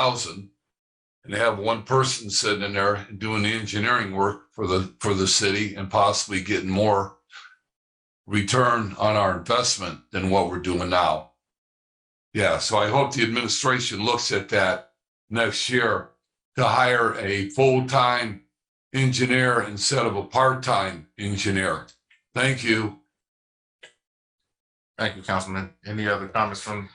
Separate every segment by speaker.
Speaker 1: thousand and have one person sitting in there doing the engineering work for the, for the city and possibly getting more return on our investment than what we're doing now. Yeah, so I hope the administration looks at that next year to hire a full-time engineer instead of a part-time engineer. Thank you.
Speaker 2: Thank you, Councilman. Any other comments from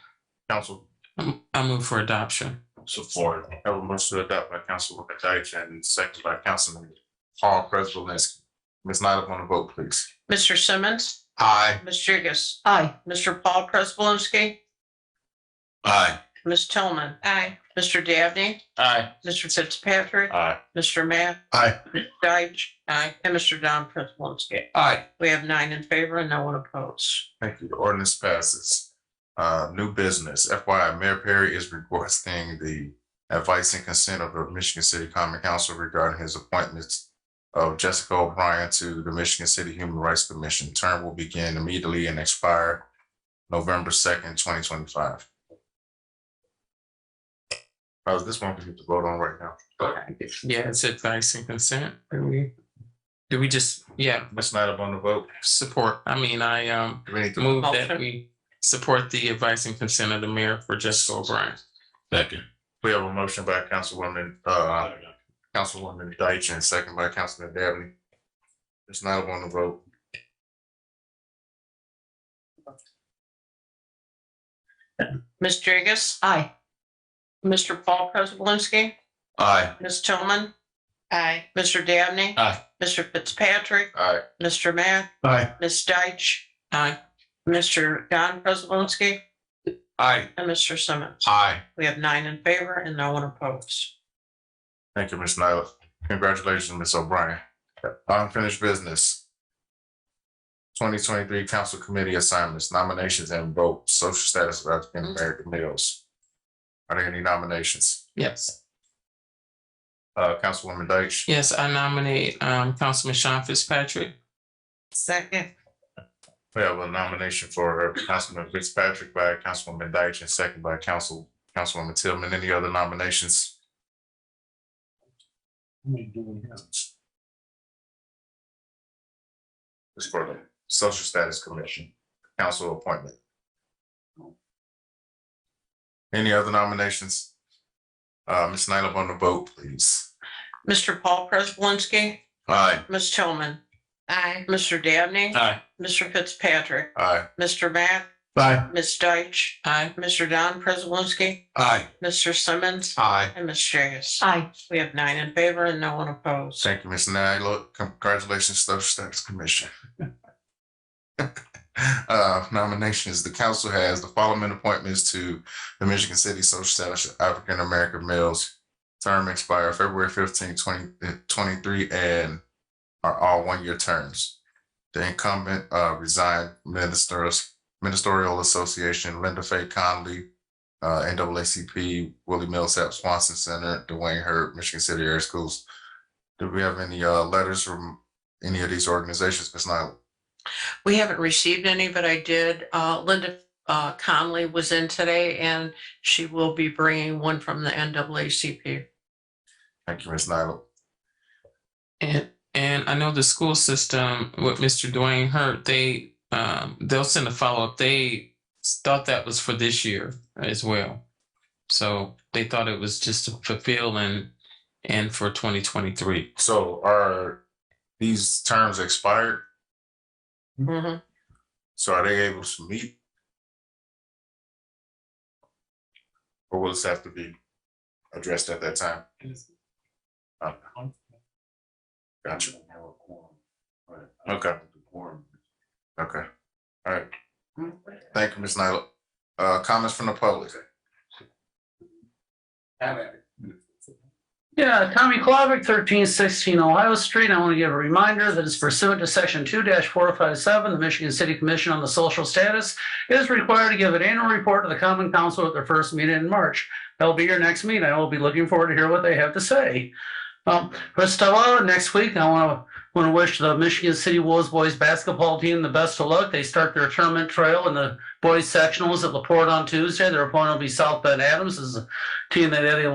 Speaker 2: council?
Speaker 3: I'm- I move for adoption.
Speaker 2: Support. Have a motion to adopt by Councilwoman Deitch and seconded by Councilman Paul Preselinski. Ms. Nyla, on the vote, please.
Speaker 4: Mr. Simmons,
Speaker 2: Aye.
Speaker 4: Ms. Jigas. Aye. Mr. Paul Prespolinski,
Speaker 1: Aye.
Speaker 4: Ms. Tillman. Aye. Mr. Dabney,
Speaker 2: Aye.
Speaker 4: Mr. Fitzpatrick,
Speaker 2: Aye.
Speaker 4: Mr. Matt.
Speaker 2: Aye.
Speaker 4: Ms. Deitch. Aye. And Mr. Don Prespolinski.
Speaker 1: Aye.
Speaker 4: We have nine in favor and no one opposed.
Speaker 2: Thank you. The ordinance passes. Uh, new business. FYI, Mayor Perry is requesting the advice and consent of the Michigan City Common Council regarding his appointments of Jessica O'Brien to the Michigan City Human Rights Commission. Term will begin immediately and expire November second, twenty twenty-five. How's this one we need to vote on right now?
Speaker 3: Yeah, it's advice and consent. Do we, do we just, yeah,
Speaker 2: Ms. Snyder on the vote.
Speaker 3: support? I mean, I um
Speaker 2: Do we need to-
Speaker 3: move that
Speaker 4: Motion.
Speaker 3: we support the advice and consent of the mayor for Jessica O'Brien.
Speaker 1: Second.
Speaker 2: We have a motion by Councilwoman, uh, Councilwoman Deitch and second by Councilman Dabney. It's not on the vote.
Speaker 4: Ms. Jigas. Aye. Mr. Paul Prespolinski,
Speaker 2: Aye.
Speaker 4: Ms. Tillman. Aye. Mr. Dabney.
Speaker 2: Aye.
Speaker 4: Mr. Fitzpatrick,
Speaker 2: Aye.
Speaker 4: Mr. Matt,
Speaker 2: Aye.
Speaker 4: Ms. Deitch,
Speaker 3: Aye,
Speaker 4: Mr. Don Prespolinski,
Speaker 1: Aye.
Speaker 4: and Mr. Simmons.
Speaker 2: Aye.
Speaker 4: We have nine in favor and no one opposed.
Speaker 2: Thank you, Ms. Nyla. Congratulations, Ms. O'Brien. Unfinished business. Twenty twenty-three council committee assignments, nominations and vote, social status of African American males. Are there any nominations?
Speaker 3: yes.
Speaker 2: Uh, Councilwoman Deitch.
Speaker 3: Yes, I nominate um Councilman Sean Fitzpatrick.
Speaker 4: Second.
Speaker 2: We have a nomination for Councilman Fitzpatrick by Councilwoman Deitch and second by Council, Councilwoman Tillman. Any other nominations? It's for the Social Status Commission, council appointment. Any other nominations? Uh, Ms. Nyla on the vote, please.
Speaker 4: Mr. Paul Prespolinski,
Speaker 2: Aye.
Speaker 4: Ms. Tillman. Aye. Mr. Dabney.
Speaker 3: Aye.
Speaker 4: Mr. Fitzpatrick,
Speaker 2: Aye.
Speaker 4: Mr. Matt,
Speaker 2: Aye.
Speaker 4: Ms. Deitch,
Speaker 3: Aye,
Speaker 4: Mr. Don Prespolinski,
Speaker 1: Aye.
Speaker 4: Mr. Simmons,
Speaker 2: Aye.
Speaker 4: and Ms. Jagus. Aye. We have nine in favor and no one opposed.
Speaker 2: Thank you, Ms. Nyla. Congratulations, Social Status Commission. Uh, nominations, the council has the following appointments to the Michigan City Social Status of African American Males. Term expire February 15, 2023, and are all one-year terms. The incumbent, uh, resigned ministers, ministerial association, Linda Faye Conley, uh, NAACP, Willie Millsap Swanson Center, Dwayne Herb, Michigan City Air Schools. Do we have any uh letters from any of these organizations, Ms. Nyla?
Speaker 4: We haven't received any, but I did. uh, Linda uh, Conley was in today, and she will be bringing one from the NAACP.
Speaker 2: Mm-hmm. Thank you, Ms. Nyla.
Speaker 3: and and I know the school system with Mr. Dwayne Hurt, they um they'll send a follow-up. They thought that was for this year as well. So they thought it was just to fulfill and and for twenty twenty-three.
Speaker 2: So are these terms expired?
Speaker 4: Mhm.
Speaker 2: So are they able to meet? Or will this have to be addressed at that time? Okay. Gotcha. Okay. Okay. All right. Thank you, Ms. Nyla. Uh, comments from the public?
Speaker 5: Yeah, Tommy Clavick, thirteen sixteen Ohio Street. I want to give a reminder that it's pursuant to section two four oh five seven, the Michigan City Commission on the Social Status is required to give an annual report to the Common Council at their first meeting in March. That'll be your next meeting. I will be looking forward to hear what they have to say. Um, Restella, next week, I want to want to wish the Michigan City Wolves boys basketball team the best of luck. They start their tournament trail in the boys sectionals at Laporte on Tuesday. Their opponent will be South Bend Adams, This is a team that had a